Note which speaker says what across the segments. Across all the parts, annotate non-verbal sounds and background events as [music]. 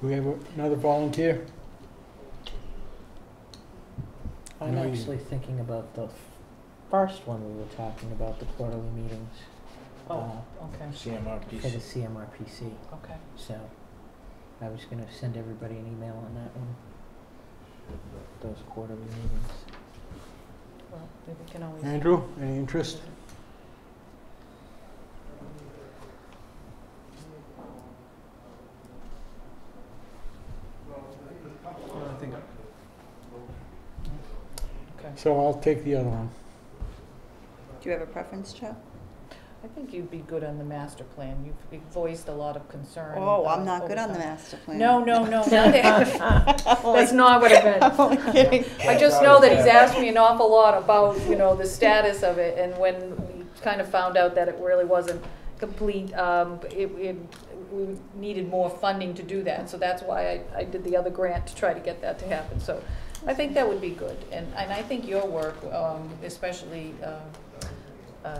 Speaker 1: Do we have another volunteer?
Speaker 2: I'm
Speaker 1: No, you-
Speaker 2: actually thinking about the first one we were talking about, the quarterly meetings.
Speaker 3: Oh,
Speaker 2: uh,
Speaker 3: okay,
Speaker 2: For the
Speaker 1: CMRPC.
Speaker 2: CMRPC,
Speaker 3: okay.
Speaker 2: so I was gonna send everybody an email on that one. Those quarterly meetings.
Speaker 3: Well, maybe we can always.
Speaker 1: Andrew, any interest?
Speaker 3: I think. Okay.
Speaker 1: So I'll take the other one.
Speaker 4: Do you have a preference, Joe?
Speaker 3: I think you'd be good on the master plan. You've- You've voiced a lot of concern.
Speaker 4: Oh, I'm
Speaker 3: uh,
Speaker 4: not good
Speaker 3: over
Speaker 4: on the
Speaker 3: time.
Speaker 4: master plan.
Speaker 3: No, no,
Speaker 4: [laughs]
Speaker 3: no. That's not what it meant.
Speaker 4: I'm only kidding.
Speaker 3: I just know that he's asked me an awful lot about, you know, the status of it, and when we kind of found out that it really wasn't complete, um, it, it, we needed more funding to do that, so that's why I, I did the other grant to try to get that to happen, so I think that would be good, and, and I think your work, um, especially, um, uh,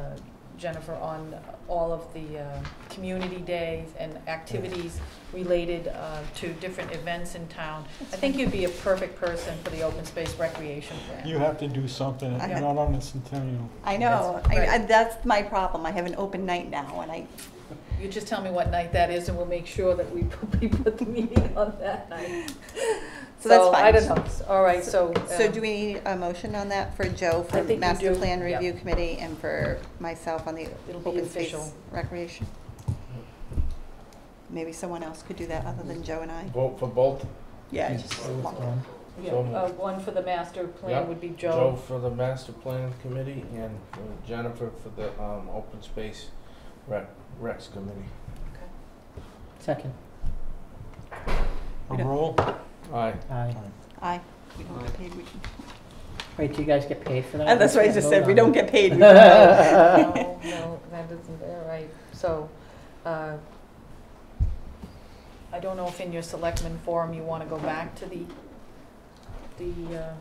Speaker 3: Jennifer, on all of the, uh, community days and activities related, uh, to different events in town, I think you'd be a perfect person for the open space recreation plan.
Speaker 1: You have to do something,
Speaker 4: I
Speaker 1: you're
Speaker 4: have-
Speaker 1: not on the centennial.
Speaker 4: I know.
Speaker 3: That's
Speaker 4: I, I,
Speaker 3: right.
Speaker 4: that's my problem. I have an open night now, and I
Speaker 3: You just tell me what night that is, and we'll make sure that we [laughs] put, we put the meeting on that night.
Speaker 4: So that's
Speaker 3: I
Speaker 4: fine.
Speaker 3: don't know, all right, so.
Speaker 4: So
Speaker 3: um,
Speaker 4: do we need a motion on that for Joe
Speaker 3: I
Speaker 4: for
Speaker 3: think we
Speaker 4: Master
Speaker 3: do,
Speaker 4: Plan
Speaker 3: yeah.
Speaker 4: Review Committee and for myself on the
Speaker 3: It'll be
Speaker 4: Open Space
Speaker 3: official.
Speaker 4: Recreation? Maybe someone else could do that other than Joe and I?
Speaker 5: Vote for both,
Speaker 4: Yeah.
Speaker 5: Yes.
Speaker 4: just
Speaker 2: So it's
Speaker 4: lump it.
Speaker 2: on.
Speaker 3: yeah,
Speaker 5: so moved.
Speaker 3: uh, One for the master plan
Speaker 5: Yeah,
Speaker 3: would be
Speaker 5: Joe
Speaker 3: Joe.
Speaker 5: for the master plan committee and uh, Jennifer for the, um, open space rec, recs committee.
Speaker 2: Second,
Speaker 1: A roll?
Speaker 5: Aye.
Speaker 2: aye.
Speaker 4: Aye. We don't get paid, we can.
Speaker 2: Wait, do you guys get paid for that?
Speaker 4: And that's what I
Speaker 2: Can't
Speaker 4: just
Speaker 2: vote
Speaker 4: said, we
Speaker 2: on
Speaker 4: don't
Speaker 2: [laughs] it.
Speaker 4: get [laughs] paid.
Speaker 3: No, no, that isn't, all right, so, uh, I don't know if in your selectmen forum you wanna go back to the, the, uh,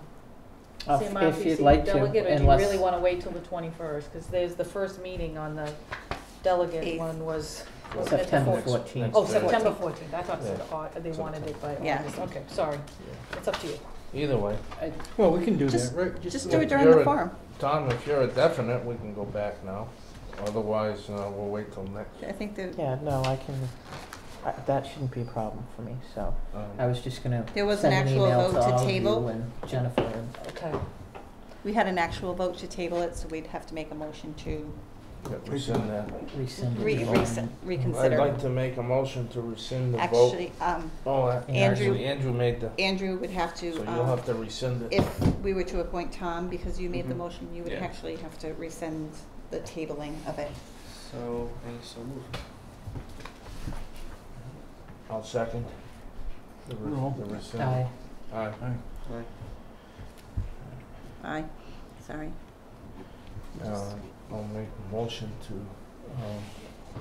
Speaker 2: Uh,
Speaker 3: CMRPC
Speaker 2: If you'd like to,
Speaker 3: delegate, or do you
Speaker 2: unless-
Speaker 3: really want to wait till the 21st? Because there's the first meeting on the delegate
Speaker 4: Eighth.
Speaker 3: one was, wasn't it the
Speaker 2: September
Speaker 3: fourth?
Speaker 2: fourteenth.
Speaker 3: Oh,
Speaker 5: Next Thursday.
Speaker 3: September 14th, I thought it said,
Speaker 5: Yeah.
Speaker 3: au- they wanted it by
Speaker 4: Yeah.
Speaker 3: August, okay, sorry, it's up to you.
Speaker 5: Either way,
Speaker 1: Well, we can do that,
Speaker 4: Just-
Speaker 1: right?
Speaker 4: Just
Speaker 5: Yeah,
Speaker 4: do it during the
Speaker 5: you're a-
Speaker 4: forum.
Speaker 5: Tom, if you're a definite, we can go back now. Otherwise, uh, we'll wait till next.
Speaker 4: I think that,
Speaker 2: Yeah, no, I can, I- that shouldn't be a problem for me, so
Speaker 5: um,
Speaker 2: I was just gonna
Speaker 4: There was an
Speaker 2: send an
Speaker 4: actual
Speaker 2: email to
Speaker 4: vote to
Speaker 2: all of
Speaker 4: table?
Speaker 2: you and Jennifer and
Speaker 3: Okay,
Speaker 4: we had an actual vote to table it, so we'd have to make a motion to
Speaker 5: yeah, Rescind that.
Speaker 2: rescind the
Speaker 4: re-
Speaker 2: email
Speaker 4: recon-
Speaker 2: and-
Speaker 5: I'd
Speaker 4: reconsider.
Speaker 5: like to make a motion to rescind the vote.
Speaker 4: Actually, um,
Speaker 5: Oh, uh,
Speaker 4: Andrew-
Speaker 5: actually, Andrew made the,
Speaker 4: Andrew would have
Speaker 5: so
Speaker 4: to,
Speaker 5: you'll
Speaker 4: um,
Speaker 5: have to rescind it.
Speaker 4: if we were to appoint Tom, because you made
Speaker 2: Mm-hmm.
Speaker 4: the
Speaker 6: Mhm.
Speaker 4: motion, you would
Speaker 5: Yeah.
Speaker 4: actually have to rescind the tabling of it.
Speaker 6: So, I so move.
Speaker 5: I'll second. The re-
Speaker 1: Roll.
Speaker 5: the rescind.
Speaker 2: Aye.
Speaker 5: Aye.
Speaker 6: Aye.
Speaker 4: Aye, sorry.
Speaker 5: Uh, I'll make a motion to um,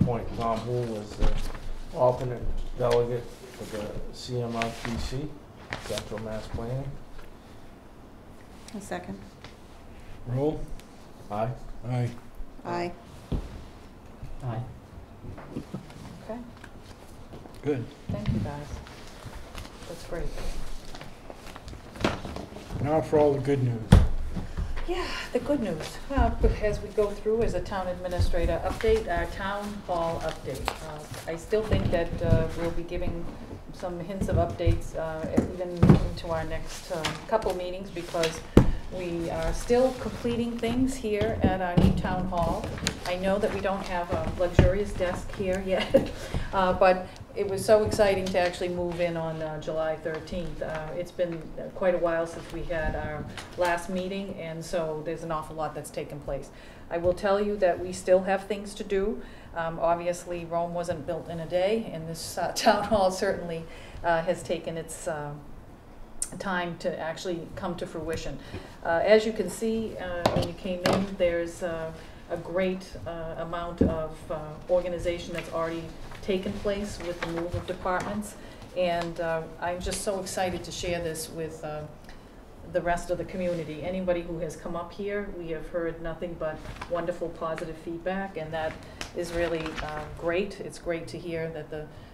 Speaker 5: appoint Tom Hool as the alternate delegate for the CMRPC, Central Mass Planning.
Speaker 4: A second.
Speaker 1: Roll?
Speaker 5: Aye.
Speaker 1: Aye.
Speaker 4: Aye.
Speaker 2: Aye.
Speaker 3: okay,
Speaker 1: Good.
Speaker 3: thank you guys. That's great.
Speaker 1: Now for all the good news.
Speaker 3: Yeah, the good news, uh, as we go through as a town administrator update, our town hall update. Uh, I still think that uh, we'll be giving some hints of updates uh, even into our next uh, couple meetings because we are still completing things here at our new town hall. I know that we don't have a luxurious desk here [laughs] yet, uh, but it was so exciting to actually move in on uh, July 13th. Uh, It's been quite a while since we had our last meeting, and so there's an awful lot that's taken place. I will tell you that we still have things to do. Um, Obviously, Rome wasn't built in a day, and this uh, [laughs] town hall certainly uh, has taken its uh, time to actually come to fruition. Uh, As you can see, uh, when you came in, there's uh, a great uh, amount of uh, organization that's already taken place with the move of departments. And uh, I'm just so excited to share this with uh, the rest of the community. Anybody who has come up here, we have heard nothing but wonderful, positive feedback, and that is really uh, great. It's great to hear that the